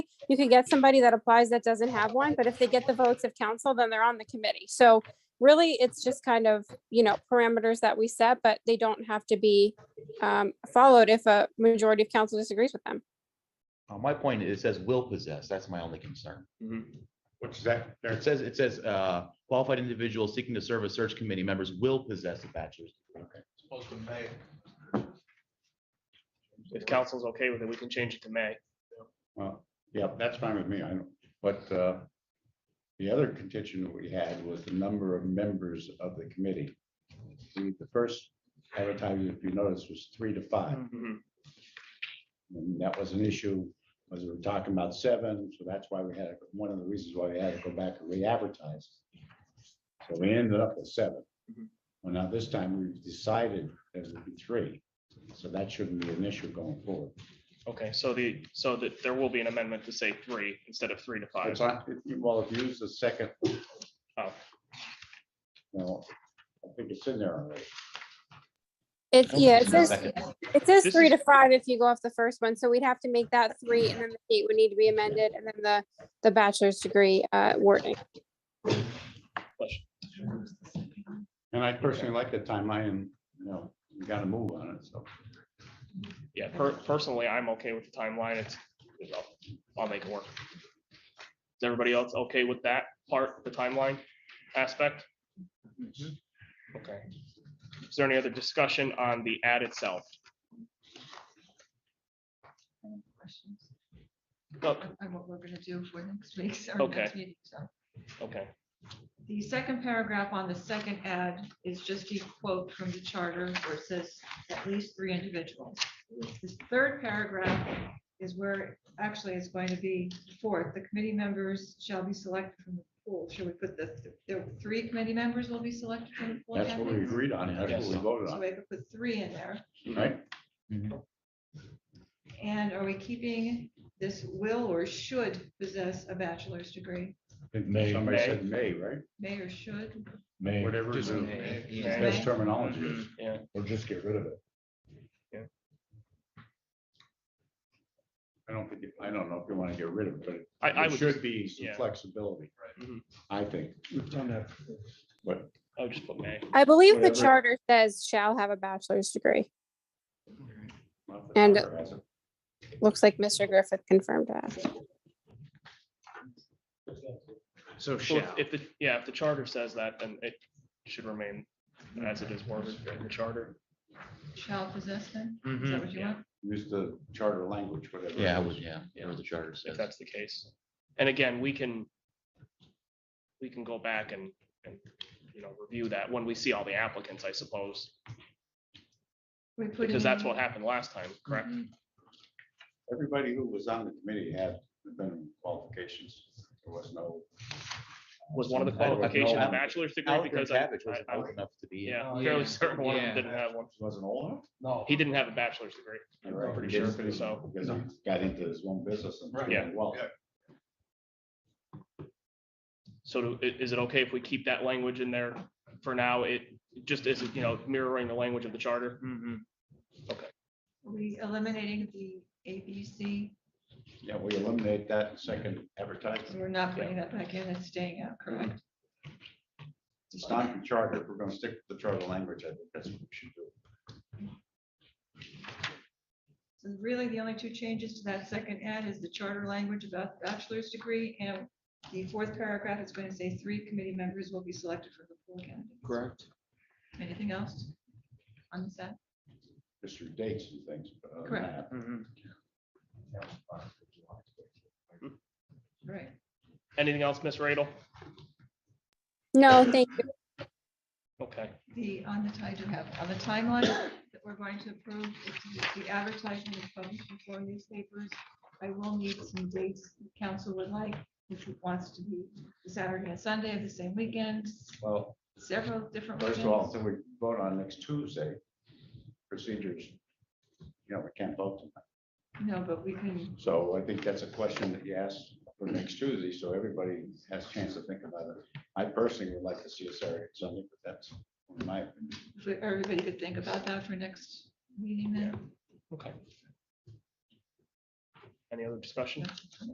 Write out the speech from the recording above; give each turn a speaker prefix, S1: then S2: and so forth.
S1: you could get somebody that applies that doesn't have one, but if they get the votes of council, then they're on the committee. So really, it's just kind of, you know, parameters that we set, but they don't have to be um, followed if a majority of council disagrees with them.
S2: Uh, My point is, it says will possess. That's my only concern.
S3: Mhm. Which is that,
S2: There, It says, it says, uh, qualified individuals seeking to serve as search committee members will possess a bachelor's. degree.
S4: Supposed to May.
S3: if council's okay with it, we can change it to May.
S5: Well, yeah, that's fine with me, I know, but uh, the other contention that we had was the number of members of the committee. The the first advertisement, if you notice, was three to five,
S3: Mhm.
S5: and that was an issue, was we were talking about seven, so that's why we had, one of the reasons why we had to go back and re-advertise. So we ended up with seven.
S3: Mhm.
S5: Well, now this time we've decided there would be three, so that shouldn't be an issue going forward.
S3: Okay, so the, so that there will be an amendment to say three instead of three to five.
S5: It's on, if you- well, if you use the second.
S3: Oh.
S5: No, I think it's in there already.
S1: It's, yeah, it
S2: No,
S1: says,
S2: second.
S1: it says
S3: This
S1: three
S3: is-
S1: to five if you go off the first one. So we'd have to make that three and then the date would need to be amended and then the, the bachelor's degree uh, wording.
S5: And I personally like the timeline and, you know, we gotta move on it, so.
S3: Yeah, per- personally, I'm okay with the timeline. It's, I'll- I'll make it work. Is everybody else okay with that part, the timeline aspect? Okay. Is there any other discussion on the ad itself?
S6: Any questions
S3: Look,
S6: on what we're gonna do for next week's, our
S3: Okay.
S6: next meeting, so.
S3: okay,
S6: The second paragraph on the second ad is just a quote from the charter where it says at least three individuals. This third paragraph is where actually it's going to be fourth, the committee members shall be selected from the pool. Should we put the, the three committee members will be selected from the pool?
S5: That's what we
S6: candidates?
S5: agreed on, that's what we voted
S6: So
S5: on,
S6: we could put three in there.
S5: right?
S6: And are we keeping this will or should possess a bachelor's degree?
S5: May. Somebody said May, right?
S6: May or should?
S7: May,
S5: Whatever
S4: Just
S5: the
S4: May.
S3: May.
S5: best terminology is.
S3: yeah,
S7: or just get rid of it.
S5: I don't think, you- I don't know if you wanna get rid of it, but.
S3: I, I
S5: there
S3: would,
S5: Should be some
S3: yeah.
S5: flexibility.
S3: Right. Mhm.
S5: I think.
S7: We've done that.
S5: But
S3: I would just put May.
S1: I believe the
S5: Whatever.
S1: charter says shall have a bachelor's degree. And- Looks like Mr. Griffith confirmed that.
S4: So
S3: So if-
S4: shall.
S3: If the, yeah, if the charter says that, then it should remain as it is worded in the charter.
S6: Shall possess them? Is that what you
S3: yeah.
S6: want?
S5: Use the charter language, whatever. it
S2: Yeah, I
S5: is.
S2: would, yeah, or the charter
S3: if
S2: says.
S3: that's the case. And again, we can, we can go back and, and, you know, review that when we see all the applicants, I suppose,
S6: We put
S3: because that's
S6: in-
S3: what happened last time, correct?
S5: Everybody who was on the committee had minimum qualifications. There was no.
S3: Was one of the
S2: I don't know.
S3: qualifications a bachelor's degree
S2: Alfred
S3: because I,
S2: Savage wasn't
S3: I- I-
S2: old enough to be in.
S3: yeah,
S4: Oh, Yeah.
S3: fairly certain one of them
S4: Yeah.
S3: didn't have one.
S5: Wasn't old enough?
S4: No.
S3: He didn't have a bachelor's degree.
S5: You're right,
S3: pretty
S5: he
S3: sure,
S5: didn't,
S3: so-
S5: Because he got into his own business and.
S4: Right.
S3: Yeah.
S5: Well,
S3: So do- i- is it okay if we keep that language in there for now? It just is, you know, mirroring the language of the charter.
S6: Are We eliminating the A, B, C,
S5: yeah, we eliminate that second advertisement.
S6: so we're not putting that back in, it's staying out, correct?
S5: It's not the charter. If We're gonna stick with the charter language. I think that's what we should do.
S6: So really, the only two changes to that second ad is the charter language about the bachelor's degree, and the fourth paragraph is going to say three committee members will be selected from the pool candidates.
S4: Correct.
S6: Anything else on this ad?
S5: Just your dates and things. but other than
S6: Correct.
S5: that,
S3: Mhm.
S5: that was fine.
S6: Right.
S3: Anything else, Miss Radel?
S1: No, thank you.
S3: Okay,
S6: The, on the, I do have, on the timeline that we're going to approve, if the advertisement is published before newspapers, I will need some dates the council would like, if it wants to be the Saturday and Sunday of the same weekend,
S5: Well,
S6: several different
S5: first of all,
S6: weekends.
S5: then we vote on next Tuesday procedures. You know, we can't vote tonight.
S6: No, but we can,
S5: So I think that's a question that you ask for next Tuesday, so everybody has a chance to think about it. I personally would like to see a Saturday, and Sunday, but that's my opinion.
S6: if everybody could think about that for next meeting then.
S3: okay. Any other discussion?